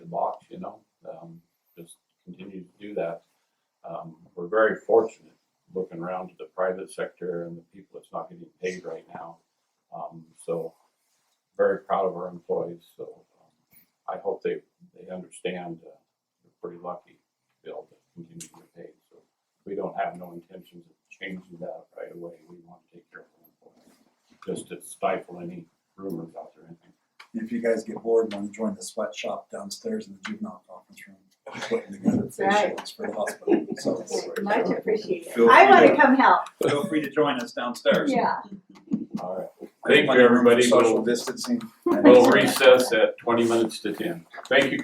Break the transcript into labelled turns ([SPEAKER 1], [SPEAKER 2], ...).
[SPEAKER 1] um, very fortunate, looking around at the private sector and the people that's not getting paid right now. Um, so very proud of our employees, so um, I hope they, they understand, uh, we're pretty lucky to be able to continue to get paid. So we don't have no intentions of changing that right away. We want to take care of our employees, just to stifle any rumors out there, anything.
[SPEAKER 2] If you guys get bored and want to join the sweatshop downstairs in the juvenile conference room, we're putting together
[SPEAKER 3] That's
[SPEAKER 2] face
[SPEAKER 3] right.
[SPEAKER 2] shields for the hospital, so.
[SPEAKER 3] Much appreciated.
[SPEAKER 2] Feel
[SPEAKER 3] I
[SPEAKER 2] free
[SPEAKER 3] wanna
[SPEAKER 2] to-
[SPEAKER 3] come help,
[SPEAKER 2] Feel free to join us downstairs.
[SPEAKER 3] yeah.
[SPEAKER 1] All right,
[SPEAKER 2] I think
[SPEAKER 1] Thank
[SPEAKER 2] my
[SPEAKER 1] you, everybody.
[SPEAKER 2] Social
[SPEAKER 1] We'll-
[SPEAKER 2] distancing.
[SPEAKER 1] we'll recess at twenty minutes to ten. Thank you,